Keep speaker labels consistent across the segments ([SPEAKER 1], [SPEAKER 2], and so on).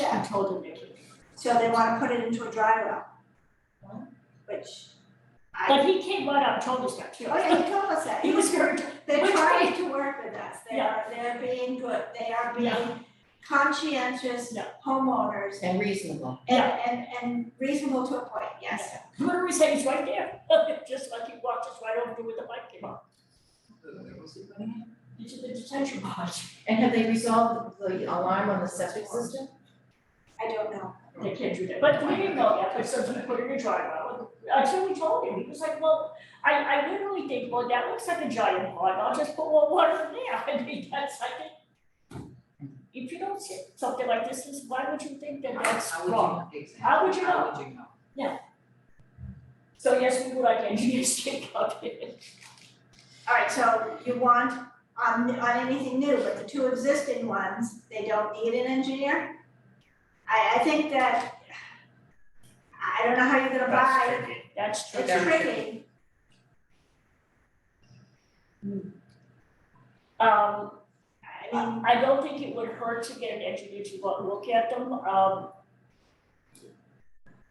[SPEAKER 1] I told him, Vicky. So they wanna put it into a dry well. Which
[SPEAKER 2] But
[SPEAKER 1] I,
[SPEAKER 2] he came right out and told us that too.
[SPEAKER 1] oh yeah, he told us that.
[SPEAKER 2] He was very,
[SPEAKER 1] They're
[SPEAKER 2] Which
[SPEAKER 1] trying
[SPEAKER 2] way?
[SPEAKER 1] to work with us, they are, they're being good, they are
[SPEAKER 2] Yeah.
[SPEAKER 1] being conscientious
[SPEAKER 2] Yeah.
[SPEAKER 1] homeowners
[SPEAKER 3] and reasonable.
[SPEAKER 1] and, and, and reasonable to a point, yes.
[SPEAKER 2] Whoever we said he's right there, just like he walked us right over to where the bike came up, into the detention box.
[SPEAKER 3] And have they resolved the alarm on the septic system?
[SPEAKER 1] I don't know,
[SPEAKER 2] They can't do that, but we didn't know that, but somebody put it in a drywall, until we told him, he was like, well, I, I literally think, well, that looks like a giant pond, I'll just put more water in there, I mean, that's like it. If you don't see something like this, is why would you think that that's wrong? How would you know?
[SPEAKER 4] How would you know?
[SPEAKER 2] So yes, we would like engineers to take up it.
[SPEAKER 1] alright, so you want on, on anything new, but the two existing ones, they don't need an engineer? I, I think that, I don't know how you're gonna buy,
[SPEAKER 2] That's true.
[SPEAKER 1] it's tricky,
[SPEAKER 2] Um,
[SPEAKER 1] I mean,
[SPEAKER 2] I don't think it would hurt to get an engineer to go and look at them, um.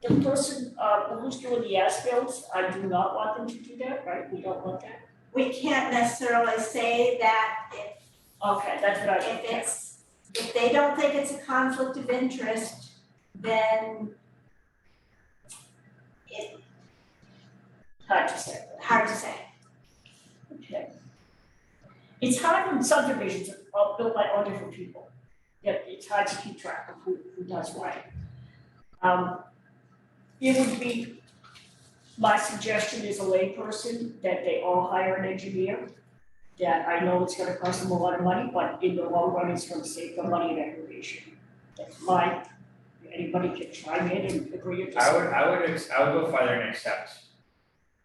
[SPEAKER 2] The person, uh, who's doing the as-bills, I do not want them to do that, right, we don't want that,
[SPEAKER 1] we can't necessarily say that if
[SPEAKER 2] okay, that's what I think.
[SPEAKER 1] if it's, if they don't think it's a conflict of interest, then it's
[SPEAKER 2] Hard to say,
[SPEAKER 1] hard to say.
[SPEAKER 2] okay. It's hard when subdivisions are all built by all different people, yeah, it's hard to keep track of who, who does what. Um, it would be, my suggestion as a layperson, that they all hire an engineer. That I know it's gonna cost them a lot of money, but in the long run, it's gonna save them money and aggravation. That's my, anybody can chime in and agree or
[SPEAKER 5] I
[SPEAKER 2] disagree.
[SPEAKER 5] would, I would, ex- I would go further and accept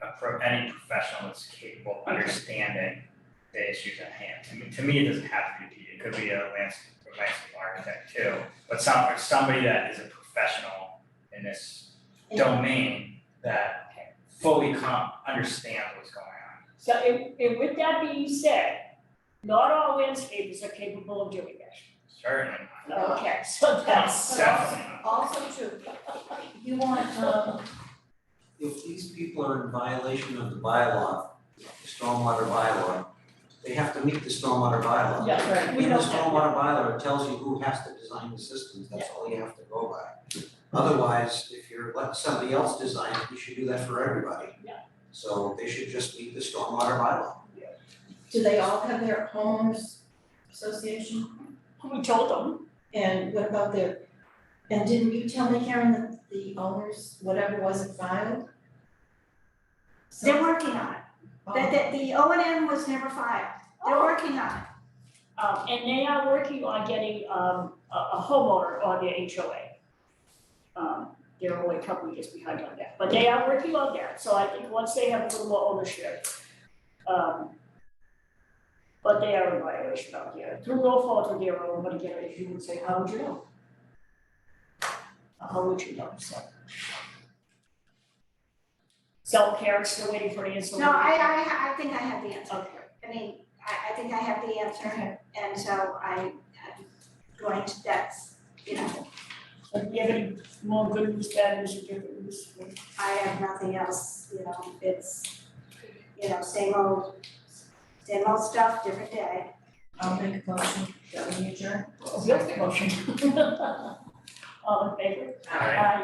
[SPEAKER 5] uh, from any professional that's capable of understanding the issues at hand. I mean, to me, it doesn't have to be, it could be a landscape, a landscape architect too, but some, or somebody that is a professional in this domain that fully com, understands what's going on.
[SPEAKER 2] So and and with that being said, not all landscapers are capable of doing that.
[SPEAKER 5] Certainly not,
[SPEAKER 3] No.
[SPEAKER 2] Okay, so that's.
[SPEAKER 5] definitely not.
[SPEAKER 3] Also true, you want, um,
[SPEAKER 6] if these people are in violation of the bylaw, the stormwater bylaw, they have to meet the stormwater bylaw.
[SPEAKER 2] Yeah, right.
[SPEAKER 6] In the stormwater bylaw, it tells you who has to design the systems, that's all you have to go by. Otherwise, if you're letting somebody else design it, you should do that for everybody.
[SPEAKER 2] Yeah.
[SPEAKER 6] So they should just meet the stormwater bylaw.
[SPEAKER 3] do they all have their homes association?
[SPEAKER 2] We told them,
[SPEAKER 3] And what about their, and didn't you tell me, Karen, that the owners, whatever wasn't filed?
[SPEAKER 1] They're
[SPEAKER 3] So,
[SPEAKER 1] working on it, that,
[SPEAKER 3] oh,
[SPEAKER 1] that the O and M was never filed, they're
[SPEAKER 2] Oh.
[SPEAKER 1] working on it.
[SPEAKER 2] um, and they are working on getting, um, a, a homeowner on their HOA. Um, they're only a couple of years behind on that, but they are working on that, so I think once they have a little more ownership, um, but they are in violation out here, through no fault of their own, but again, if you would say, how would you know? How would you know, so. So Karen's still waiting for an answer.
[SPEAKER 1] No, I, I, I think I have the answer,
[SPEAKER 2] Okay.
[SPEAKER 1] I mean, I, I think I have the answer, and so I, I'm going to, that's, you know,
[SPEAKER 2] Do you have any more good news, bad news, or different news?
[SPEAKER 1] I have nothing else, you know, it's, you know, same old, same old stuff, different day.
[SPEAKER 3] I'll make a motion, that we adjourn.
[SPEAKER 2] Yes, motion. All in favor?
[SPEAKER 5] All right.
[SPEAKER 2] Aye.